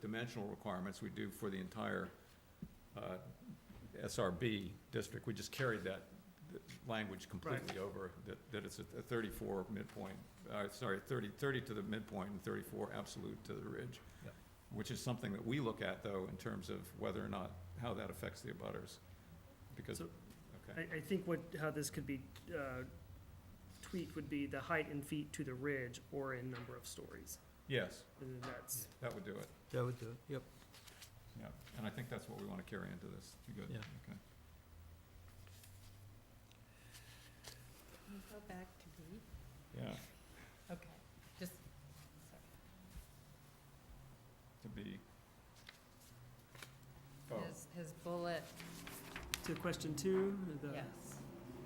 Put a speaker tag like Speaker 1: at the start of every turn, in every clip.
Speaker 1: dimensional requirements we do for the entire uh, SRB district. We just carried that th- language completely over, that, that it's a a thirty-four midpoint, uh, sorry, 30 30 to the midpoint and thirty-four absolute to the ridge.
Speaker 2: Yep.
Speaker 1: Which is something that we look at, though, in terms of whether or not, how that affects the abutters, because,
Speaker 3: So-
Speaker 1: okay,
Speaker 3: I, I think what, how this could be uh, tweaked would be the height in feet to the ridge or in number of stories.
Speaker 1: yes,
Speaker 3: And then that's,
Speaker 1: that would do it.
Speaker 2: That would do it, yep.
Speaker 1: Yeah, and I think that's what we want to carry into this. You good?
Speaker 2: Yeah.
Speaker 1: Okay.
Speaker 4: Can you go back to B?
Speaker 1: Yeah,
Speaker 4: Okay, just, sorry.
Speaker 1: to be. Oh,
Speaker 4: His, his bullet,
Speaker 3: to question two, the.
Speaker 4: yes.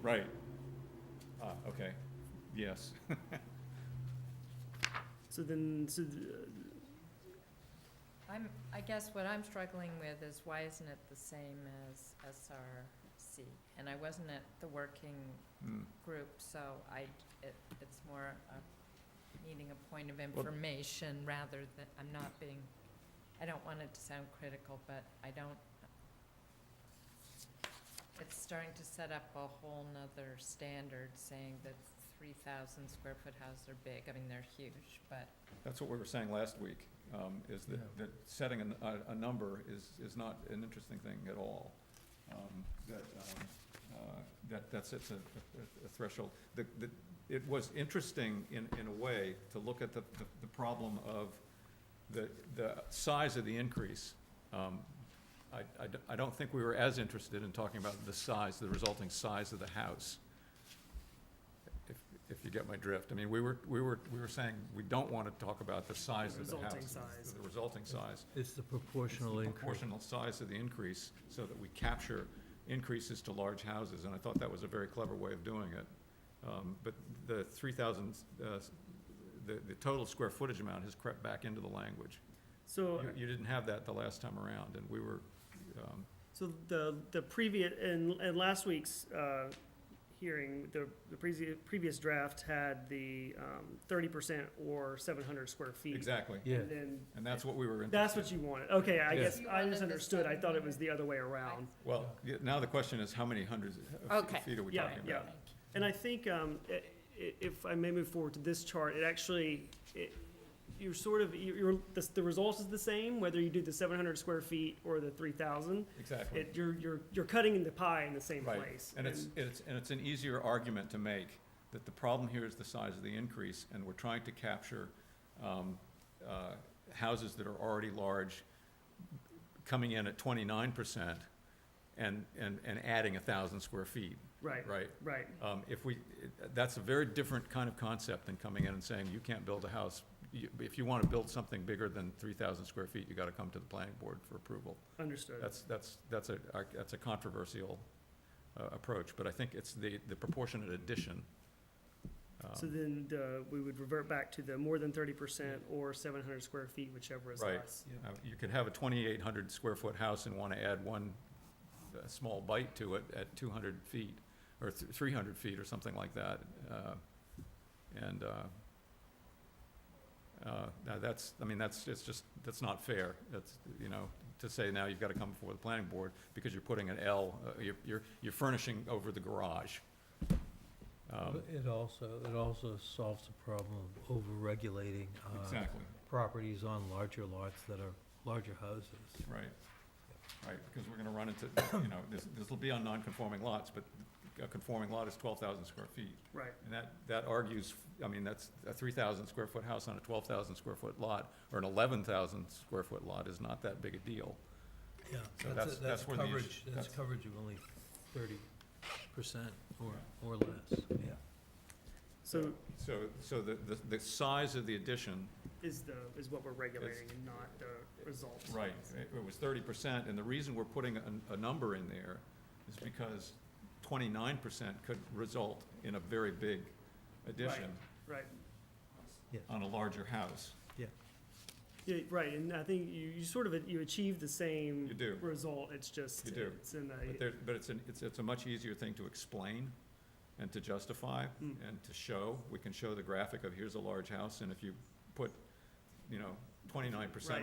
Speaker 1: right. Ah, okay, yes.
Speaker 3: So then, so, the-
Speaker 4: I'm, I guess what I'm struggling with is why isn't it the same as SRC? And I wasn't at the working
Speaker 1: Hmm.
Speaker 4: group, so I, it, it's more a, needing a point of information rather than, I'm not being, I don't want it to sound critical, but I don't, it's starting to set up a whole nother standard saying that three thousand square foot houses are big, I mean, they're huge, but
Speaker 1: That's what we were saying last week, um, is
Speaker 2: Yeah.
Speaker 1: that, that setting a n- a, a number is, is not an interesting thing at all. Um, That, um, uh, that, that sets a, a- a threshold. The, the, it was interesting in, in a way to look at the, the- the problem of the, the size of the increase. Um, I, I d- I don't think we were as interested in talking about the size, the resulting size of the house if, if you get my drift. I mean, we were, we were, we were saying, we don't want to talk about the size of the house.
Speaker 3: Resulting
Speaker 1: it's
Speaker 3: size.
Speaker 1: The resulting size.
Speaker 2: It's the
Speaker 1: It's the
Speaker 2: proportional increase.
Speaker 1: Proportional size of the increase, so that we capture increases to large houses, and I thought that was a very clever way of doing it. Um, but the three thousand, uh, s- the, the total square footage amount has crept back into the language.
Speaker 3: so.
Speaker 1: You, you didn't have that the last time around, and we were, um,
Speaker 3: So the, the previous, in, in last week's, uh, hearing, the, the previous, previous draft had the, um, thirty percent or seven hundred square feet.
Speaker 1: exactly,
Speaker 2: Yeah,
Speaker 3: And then,
Speaker 1: and that's what we were interested
Speaker 3: that's what you wanted, okay, I
Speaker 2: Yeah.
Speaker 3: guess,
Speaker 4: You
Speaker 3: I
Speaker 4: wanted the
Speaker 3: misunderstood, I thought it was the other way around.
Speaker 1: Well, yeah, now the question is, how many hundreds of
Speaker 4: Okay.
Speaker 1: fe- feet are we
Speaker 3: Yeah,
Speaker 1: talking about?
Speaker 3: yeah. And I think, um, i- i- if I may move forward to this chart, it actually, it, you're sort of, you're, you're- the, the result is the same, whether you do the seven hundred square feet or the three thousand.
Speaker 1: Exactly.
Speaker 3: It, you're, you're, you're cutting the pie in the same
Speaker 1: Right.
Speaker 3: place.
Speaker 1: And it's, it's, and it's an easier argument to make, that the problem here is the size of the increase, and we're trying to capture, um, uh, houses that are already large, coming in at twenty-nine percent, and, and, and adding a thousand square feet,
Speaker 3: Right,
Speaker 1: right?
Speaker 3: right.
Speaker 1: Um, if we, it- that's a very different kind of concept than coming in and saying, you can't build a house. You, if you wanna build something bigger than three thousand square feet, you gotta come to the planning board for approval.
Speaker 3: Understood.
Speaker 1: That's, that's, that's a, our- that's a controversial uh, approach, but I think it's the, the proportionate addition. um,
Speaker 3: So then the, we would revert back to the more than thirty percent or seven hundred square feet, whichever is
Speaker 1: Right.
Speaker 3: less.
Speaker 2: yeah.
Speaker 1: uh, You could have a twenty-eight hundred square foot house and want to add one uh, small bite to it at two hundred feet, or three hundred feet or something like that. uh, And, uh, uh, now that's, I mean, that's, it's just, that's not fair. That's, you know, to say now you've got to come before the planning board because you're putting an L, uh, you're, you're- you're furnishing over the garage. Um,
Speaker 2: But It also, it also solves the problem of over-regulating uh,
Speaker 1: Exactly,
Speaker 2: properties on larger lots that are larger houses.
Speaker 1: right. Right, because we're gonna run into, you know, this, this'll be on non-conforming lots, but a conforming lot is twelve thousand square feet.
Speaker 3: Right,
Speaker 1: And that, that argues, I mean, that's a three thousand square foot house on a twelve thousand square foot lot, or an eleven thousand square foot lot is not that big a deal.
Speaker 2: Yeah,
Speaker 1: So that's- that's where the issue-
Speaker 2: coverage, that's
Speaker 1: that's-
Speaker 2: coverage of only thirty percent or, or less, yeah.
Speaker 3: so
Speaker 1: So, so the, the, the size of the addition.
Speaker 3: is the, is what we're regulating and not the result.
Speaker 1: Right, it it was thirty percent, and the reason we're putting a, a number in there is because twenty-nine percent could result in a very big addition
Speaker 3: Right,
Speaker 1: on a larger house.
Speaker 3: yeah, right, and I think you, you sort of, you achieve the same.
Speaker 1: You do.
Speaker 3: Result, it's just.
Speaker 1: You do.
Speaker 3: It's in
Speaker 1: But
Speaker 3: the,
Speaker 1: there, but it's an, it's, it's a much easier thing to explain and to justify
Speaker 3: Mm.
Speaker 1: and to show. We can show the graphic of here's a large house, and if you put, you know, twenty-nine percent
Speaker 3: Right.